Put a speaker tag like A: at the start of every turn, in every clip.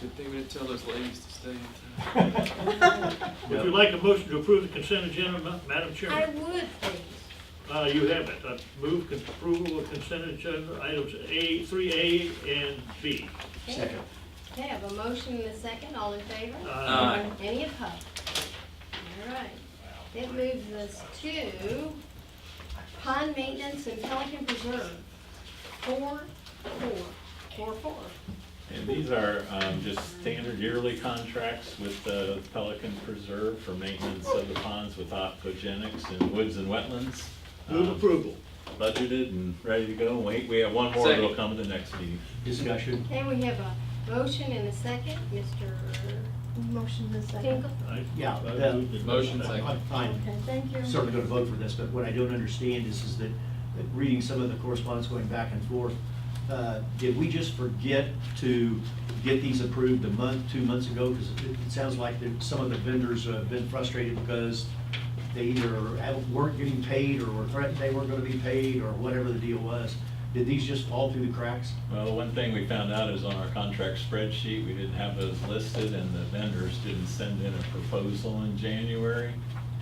A: Good thing we didn't tell those ladies to stay in town.
B: Would you like a motion to approve the consent agenda, Ma- Madam
C: I
B: Chairman?
C: would, please.
B: Uh, you have it. I move con- approval of consent agenda items A, three A and B.
C: Second. Okay, I have a motion and a second, all in favor?
B: Uh,
A: Aye.
C: Any opposed? All right. It moves us to pond maintenance and Pelican Preserve. Four, four, four, four.
D: And these are um, just standard yearly contracts with the Pelican Preserve for maintenance of the ponds with aquagenics and woods and wetlands.
B: Move
D: Um,
B: approval.
D: Budgeted and ready to go. Wait, we have one more that'll
A: Second.
D: come in the next meeting.
E: Discussion.
C: And we have a motion and a second, Mr.
F: Motion is second.
C: Tinkle.
B: I-
E: Yeah,
B: I
E: the-
B: moved it.
A: Motion second.
E: I'm fine,
F: Okay, thank you.
E: certainly gonna vote for this, but what I don't understand is, is that, that reading some of the correspondence going back and forth, uh, did we just forget to get these approved a month, two months ago? Because it, it sounds like that some of the vendors have been frustrated because they either haven't- weren't getting paid, or were threatened they weren't gonna be paid, or whatever the deal was. Did these just fall through the cracks?
D: Well, the one thing we found out is on our contract spreadsheet, we didn't have those listed and the vendors didn't send in a proposal in January.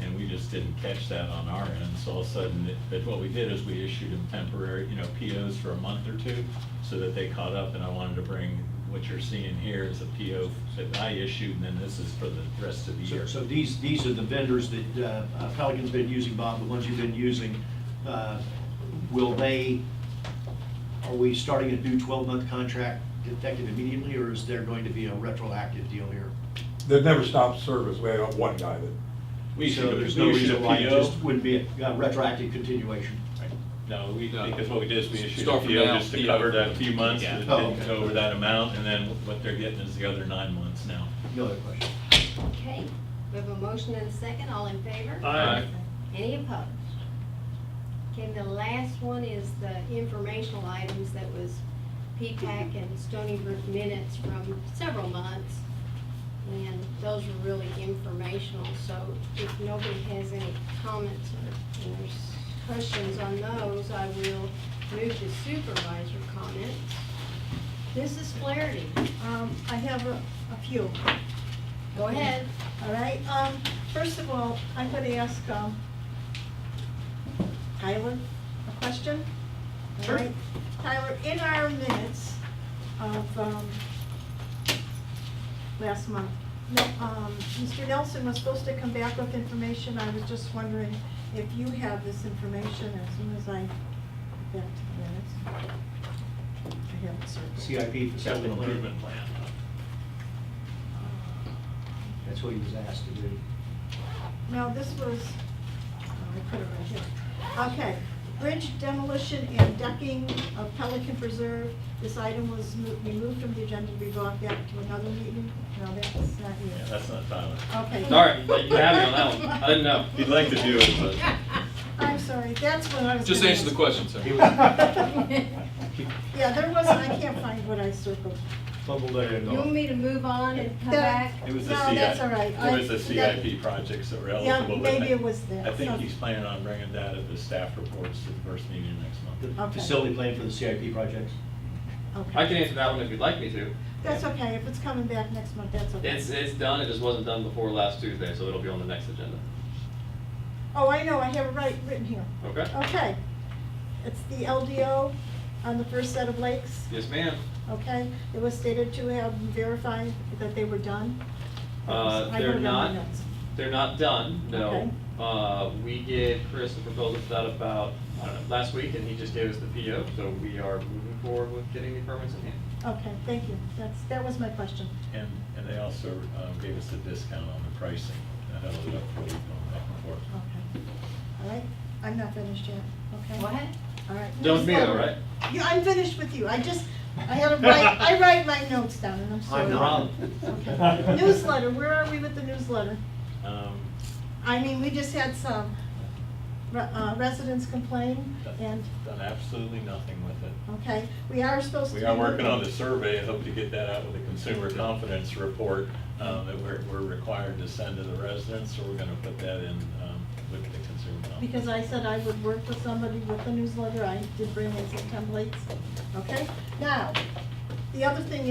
D: And we just didn't catch that on our end. So all of a sudden, it- but what we did is we issued them temporary, you know, POs for a month or two so that they caught up. And I wanted to bring, what you're seeing here is a PO that I issued and then this is for the rest of the
E: So,
D: year.
E: so these, these are the vendors that uh, Pelican's been using, Bob, the ones you've been using. Uh, Will they, are we starting a new twelve-month contract effective immediately, or is there going to be a retroactive deal here?
G: They've never stopped service. We had one guy that,
D: We issued,
E: So
D: a-
E: there's no
D: we issued a
E: reason why it
D: PO.
E: just wouldn't be a uh, retroactive continuation.
D: No, we,
A: No.
D: because what we did is we issued a
A: Start from
D: PO
A: now.
D: just to cover that few months
A: Yeah.
D: that
E: Oh,
D: didn't
E: okay.
D: go over that amount, and then what they're getting is the other nine months now.
E: No other question.
C: Okay, we have a motion and a second, all in favor?
B: Aye.
C: Any opposed? Okay, the last one is the informational items that was P-PAC and Stony Brook minutes from several months. And those were really informational, so if nobody has any comments or and there's questions on those, I will move to supervisor comments. Mrs. Flaherty,
F: Um, I have a, a few,
C: go ahead.
F: all right? Um, first of all, I'm gonna ask, um, Tyler a question. All
E: Sure.
F: right. Tyler, in our minutes of, um, last month, no, um, Mr. Nelson was supposed to come back with information. I was just wondering if you have this information as soon as I get back to the minutes. I have it circled.
E: CIP facility
D: Capital
E: improvement,
D: improvement plan.
E: that's what he was asked to do.
F: No, this was, oh, I put it right here. Okay, bridge demolition and decking of Pelican Preserve. This item was mo- removed from the agenda, we brought back to another meeting. No, that's not
D: Yeah,
F: you.
D: that's not Tyler.
F: Okay.
H: Sorry, you have me on that one. I didn't know.
D: He'd like to do it,
F: I'm sorry, that's what I was.
A: Just
F: gonna
A: answer the
F: ask.
A: question, sir.
E: He was
F: Yeah, there wasn't, I can't find what I circled.
E: fumbled there and
C: You want
E: all.
C: me to move on and come
F: That-
C: back?
D: but it was the
F: No,
D: CIP.
F: that's all right. I-
D: It was the
F: that-
D: CIP projects that were
F: Yeah,
D: eligible. but I-
F: maybe it was that.
D: I think
F: So-
D: he's planning on bringing that at the staff reports to the first meeting next month.
E: The
F: Okay.
E: facility plan for the CIP projects?
F: Okay.
H: I can answer that one if you'd like me to.
F: That's okay, if it's coming back next month, that's okay.
H: It's, it's done, it just wasn't done before last Tuesday, so it'll be on the next agenda.
F: Oh, I know, I have it right, written here.
H: Okay?
F: Okay, it's the LDO on the first set of lakes,
H: Yes, ma'am.
F: okay? It was stated to have verified that they were done.
H: Uh,
F: I
H: they're
F: wrote it down in
H: not.
F: my notes.
H: They're not done, no.
F: Okay.
H: Uh, we gave Chris a proposal for that about, I don't know, last week, and he just gave us the PO, so we are moving forward with getting the permits in hand.
F: Okay, thank you, that's, that was my question.
D: And, and they also um, gave us a discount on the pricing. I held it up for, you, going back and forth.
F: Okay, all right, I'm not finished yet, okay?
C: What?
F: All right.
H: Done with me though,
F: Next
H: right?
F: letter. Yeah, I'm finished with you, I just, I had to write, I write my notes down, and I'm sorry.
E: I'm not.
F: Okay. Newsletter, where are we with the newsletter?
D: Um,
F: I mean, we just had some re- uh, residents complain, and
D: Done absolutely nothing with it.
F: Okay, we are supposed to.
D: We
F: be
D: are working on the survey, I hope to get that out with a consumer confidence report um, that we're, we're required to send to the residents, so we're gonna put that in um, with the consumer confidence.
F: Because I said I would work with somebody with the newsletter, I did bring in some templates, okay? Now, the other thing